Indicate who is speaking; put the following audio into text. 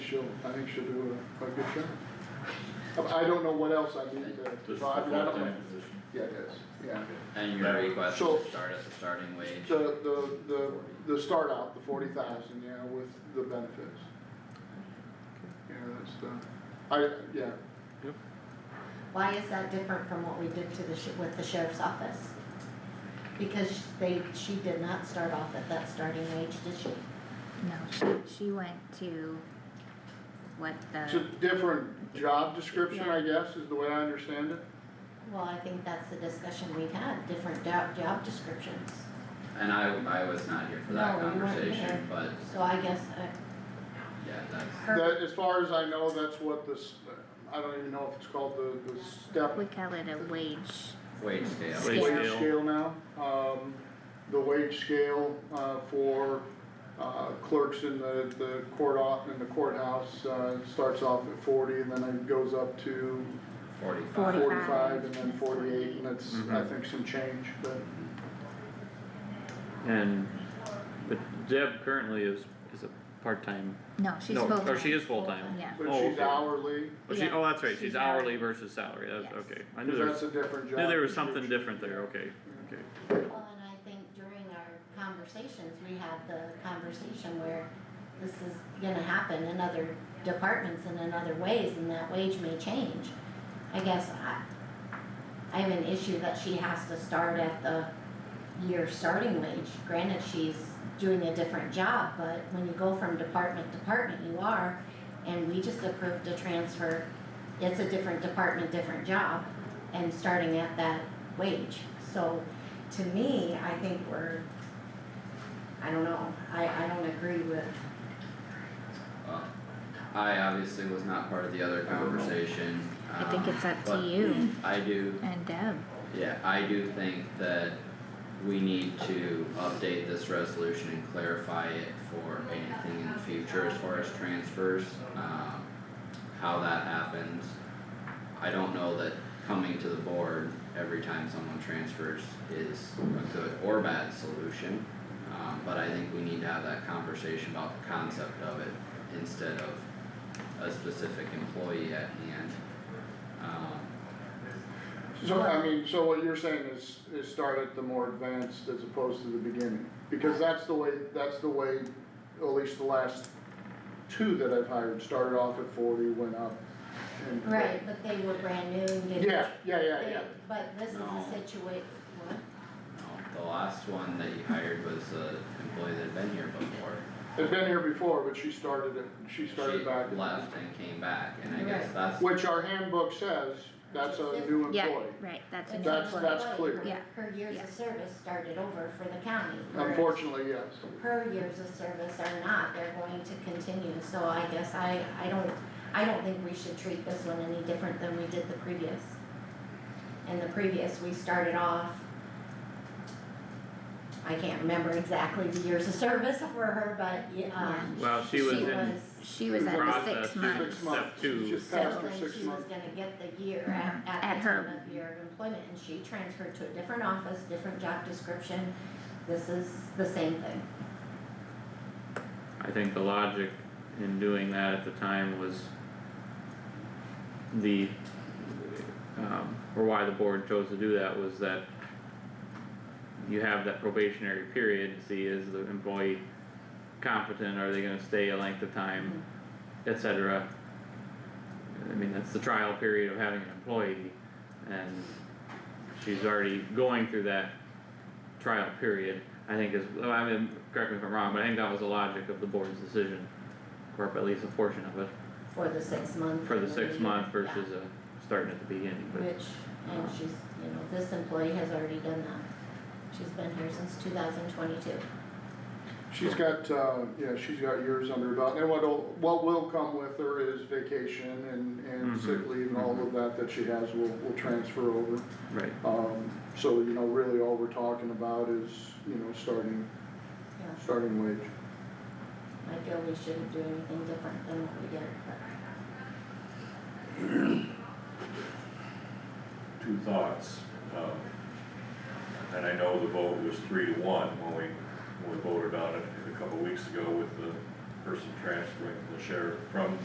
Speaker 1: she'll, I think she'll do a, a good job. Um, I I don't know what else I need to, so I, I don't know.
Speaker 2: position.
Speaker 1: Yeah, it is, yeah.
Speaker 3: And your request is
Speaker 1: So-
Speaker 3: to start at the starting wage.
Speaker 1: The, the, the, the start out, the forty thousand, yeah, with the benefits. Yeah, that's the, I, yeah,
Speaker 4: Why is that different from what we did to the, sh- with the sheriff's office? Because they, she did not start off at that starting wage, did she?
Speaker 5: No, she, she went to what
Speaker 1: it's a
Speaker 5: the,
Speaker 1: different job description, I guess, is the way I understand it.
Speaker 4: Well, I think that's the discussion we had, different job, job descriptions.
Speaker 3: And I, I was not here for that
Speaker 4: No, you weren't
Speaker 3: conversation,
Speaker 4: here.
Speaker 3: but
Speaker 4: So I guess, uh,
Speaker 3: yeah, that's,
Speaker 5: her,
Speaker 1: That, as far as I know, that's what this, I don't even know if it's called the, the step
Speaker 5: we call it a wage,
Speaker 3: wage scale.
Speaker 5: Wage
Speaker 1: wage
Speaker 6: scale.
Speaker 1: scale now. Um, the wage scale, uh, for, uh, clerks in the, the court off, in the courthouse, uh, starts off at forty and then it goes up to
Speaker 3: Forty-five.
Speaker 5: Forty.
Speaker 1: forty-five and then forty-eight and that's, I
Speaker 6: Mhm.
Speaker 1: think, some change, but.
Speaker 6: And, but Deb currently is, is a part-time,
Speaker 5: no, she's
Speaker 6: No,
Speaker 5: full-time.
Speaker 6: or she is full-time.
Speaker 5: Yeah,
Speaker 1: But
Speaker 6: Oh,
Speaker 1: she's
Speaker 6: okay.
Speaker 1: hourly,
Speaker 6: oh, she,
Speaker 5: Yeah,
Speaker 6: oh, that's right,
Speaker 5: she's
Speaker 6: she's hourly
Speaker 5: hourly.
Speaker 6: versus salary, that's,
Speaker 5: Yes.
Speaker 6: okay, I knew
Speaker 1: cause
Speaker 6: there was,
Speaker 1: that's a different job.
Speaker 6: knew there was something
Speaker 1: description.
Speaker 6: different there, okay, okay.
Speaker 4: well, and I think during our conversations, we had the conversation where this is gonna happen in other departments and in other ways, and that wage may change. I guess I, I have an issue that she has to start at the year starting wage. Granted, she's doing a different job, but when you go from department to department, you are, and we just approved a transfer. It's a different department, different job, and starting at that wage. So to me, I think we're, I don't know, I, I don't agree with,
Speaker 3: Well, I obviously was not part of the other conversation,
Speaker 5: I think
Speaker 3: um,
Speaker 5: it's up to
Speaker 3: but
Speaker 5: you
Speaker 3: I do
Speaker 5: and Deb,
Speaker 3: Yeah, I do think that we need to update this resolution and clarify it for anything in the future as far as transfers, um, how that happens. I don't know that coming to the board every time someone transfers is a good or bad solution. Um, but I think we need to have that conversation about the concept of it instead of a specific employee at hand. Um,
Speaker 1: So, I mean, so what you're saying is, is start at the more advanced as opposed to the beginning, because that's the way, that's the way, at least the last two that I've hired, started off at forty, went up and.
Speaker 4: right, but they were brand new, and didn't-
Speaker 1: Yeah, yeah, yeah,
Speaker 4: they-
Speaker 1: yeah,
Speaker 4: But this is
Speaker 3: No.
Speaker 4: a situation. what?
Speaker 3: No, the last one that you hired was a employee that had been here before.
Speaker 1: has been here before, but she started it, she started back.
Speaker 3: She left and came back, and I guess
Speaker 4: Right.
Speaker 3: that's,
Speaker 1: Which our handbook says, that's a new employee.
Speaker 5: yeah, right, that's an
Speaker 4: It's
Speaker 1: That's-
Speaker 4: not
Speaker 5: employee,
Speaker 1: that's
Speaker 4: employee.
Speaker 1: clear.
Speaker 5: Yeah.
Speaker 4: Her her years
Speaker 5: Yeah.
Speaker 4: of service started over for the county. whereas
Speaker 1: Unfortunately, yes,
Speaker 4: Her years of service are not, they're going to continue, so I guess I, I don't, I don't think we should treat this one any different than we did the previous. In the previous, we started off, I can't remember exactly the years of service for her, but, yeah, um,
Speaker 6: Well, she
Speaker 4: she
Speaker 6: was
Speaker 4: was,
Speaker 6: in
Speaker 5: she was at the
Speaker 6: process,
Speaker 5: six
Speaker 6: she
Speaker 5: months,
Speaker 6: was
Speaker 1: Six months.
Speaker 6: step two,
Speaker 1: Just
Speaker 4: so
Speaker 1: past her
Speaker 4: then
Speaker 1: six
Speaker 4: she was
Speaker 1: months.
Speaker 4: gonna get the year at,
Speaker 5: At
Speaker 4: at the
Speaker 5: her-
Speaker 4: time of year of employment, and she transferred to a different office, different job description. This is the same thing.
Speaker 6: I think the logic in doing that at the time was the, um, or why the board chose to do that was that you have that probationary period to see is the employee competent, are they gonna stay a length of time, et cetera. I mean, that's the trial period of having an employee, and she's already going through that trial period, I think is, well, I mean, correct me if I'm wrong, but I think that was the logic of the board's decision. Or at least a portion of it,
Speaker 4: For the six month.
Speaker 6: for the
Speaker 4: and
Speaker 6: six
Speaker 4: year.
Speaker 6: month
Speaker 4: Yeah.
Speaker 6: versus uh starting at the beginning, but,
Speaker 4: Which, and she's, you know, this employee has already done that. She's been here since two thousand twenty-two.
Speaker 1: She's got, uh, yeah, she's got years under her belt, and what'll, what will come with her is vacation and, and sick
Speaker 6: Mhm,
Speaker 1: leave and all of that that she has will, will transfer over.
Speaker 6: right,
Speaker 1: Um, so, you know, really all we're talking about is, you know, starting,
Speaker 4: Yeah,
Speaker 1: starting wage.
Speaker 4: I feel we shouldn't do anything different than what we did, but
Speaker 2: Two thoughts, um, and I know the vote was three to one when we, when we voted on it a couple weeks ago with the person transferring the sheriff from